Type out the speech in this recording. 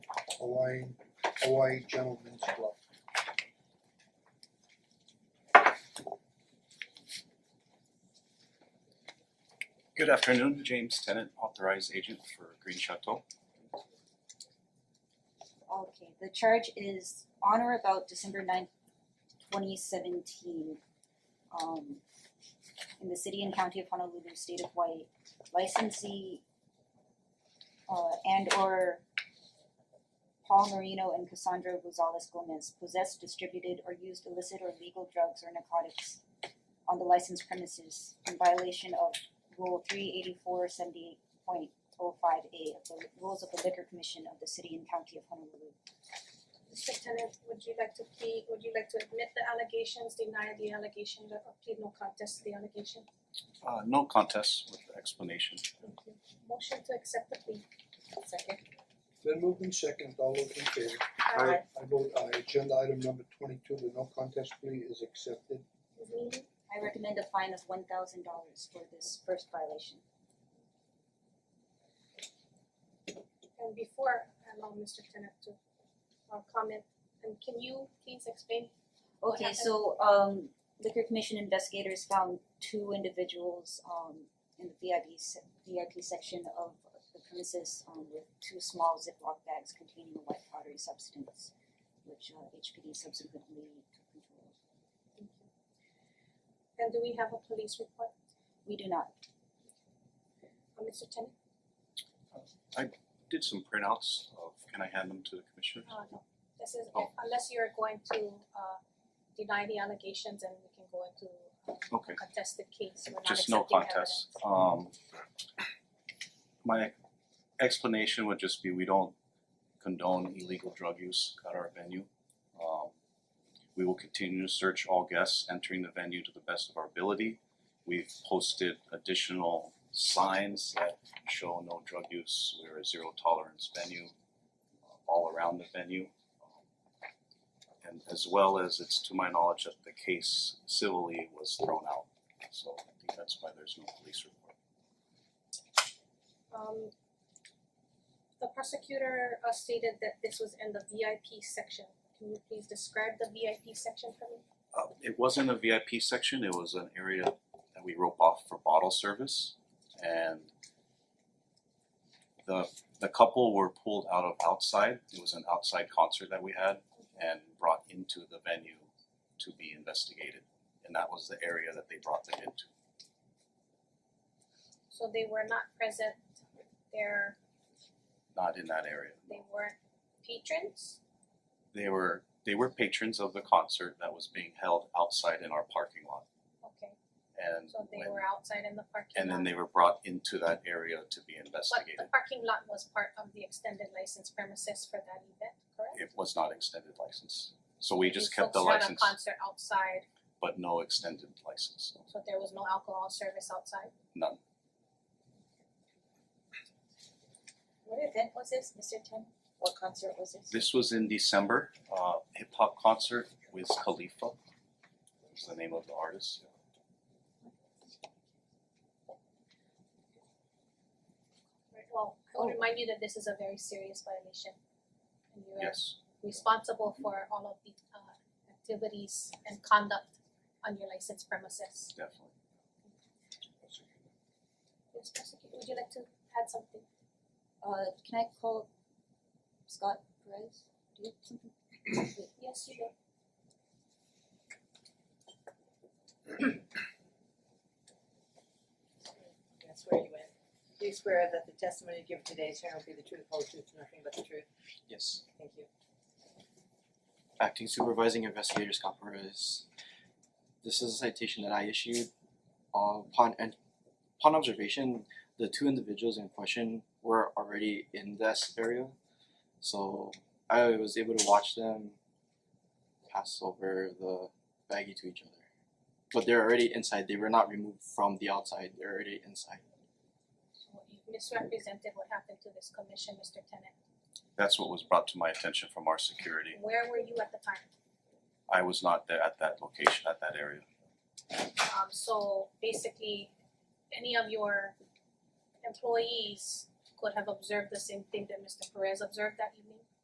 Hawaiian Hawaii Gentlemen's Club. Good afternoon, James Tennant, authorized agent for Green Chateau. Okay, the charge is on or about December ninth, twenty seventeen. Um in the city and county of Honolulu, state of Hawaii, licensee uh and or Paul Marino and Cassandra Rosales Gomez possessed, distributed or used illicit or legal drugs or narcotics on the licensed premises in violation of rule three eighty four seventy eight point oh five A of the rules of the liquor commission of the city and county of Honolulu. Mr. Tennant, would you like to plead, would you like to admit the allegations, deny the allegations, or plead no contest to the allegation? Uh no contest with the explanation. Thank you. Motion to accept the plea. Second. Then moved in second, all those in favor? Uh, Aye. I vote aye, agenda item number twenty two, the no contest plea is accepted. Ms. Neely, I recommend a fine of one thousand dollars for this first violation. and before I allow Mr. Tennant to uh comment, and can you please explain? What Okay, happened? so um liquor commission investigators found two individuals um in the VIP se- VIP section of the premises um with two small Ziploc bags containing a white powdery substance, which uh HPD subsequently took control of. Thank you. And do we have a police report, We do not uh Mr. Tennant? Did some printouts of, can I hand them to the commissioners? Uh no, this is Oh. unless you're going to uh deny the allegations and we can go into uh Okay, contested case, we're not just no accepting contest. Um my explanation would just be we don't condone illegal drug use at our venue. Um we will continue to search all guests entering the venue to the best of our ability. We've posted additional signs that show no drug use, we're a zero tolerance venue uh, all around the venue. And as well as it's to my knowledge that the case civilly was thrown out, so I think that's why there's no police report. Um the prosecutor uh stated that this was in the VIP section. Can you please describe the VIP section for me? Uh it wasn't a VIP section, it was an area that we rope off for bottle service and the the couple were pulled out of outside, it was an outside concert that we had and brought into the venue to be investigated. And that was the area that they brought them into. So they were not present, they're not in that area. they weren't patrons? They were they were patrons of the concert that was being held outside in our parking lot, Okay, and so they when- were outside in the parking lot. and then they were brought into that area to be But the investigated. parking lot was part of the extended license premises for that event, correct? It was not extended license, so we just These kept the folks ran license, a concert outside, but no extended license, so there was no alcohol service outside. none. What event was this, Mister Ten? What concert was this? This was in December, uh, hip hop concert with Khalifa. Was the name of the artist? Right, well, I would Oh. remind you that this is a very serious violation. And you are Yes, responsible for all of the uh activities and conduct on your licensed premises. definitely. Yes, prosecutor, would you like to add something? Uh can I call Scott Perez? Do you have something? Wait. Yes, you may. That's where you went. Do you swear that the testimony you give today is here will be the truth, whole truth, and nothing but the truth? Yes. Thank you. Acting Supervising Investigator Scott Perez. This is a citation that I issued. Uh, upon and upon observation, the two individuals in question were already in this area, so I was able to watch them pass over the baggie to each other. But they're already inside. They were not removed from the outside. They're already inside. So you misrepresented what happened to this commission, Mister Tennant. That's what was brought to my attention from our security. Where were you at the time? I was not there at that location, at that area. Um so basically, any of your employees could have observed the same thing that Mister Perez observed that evening?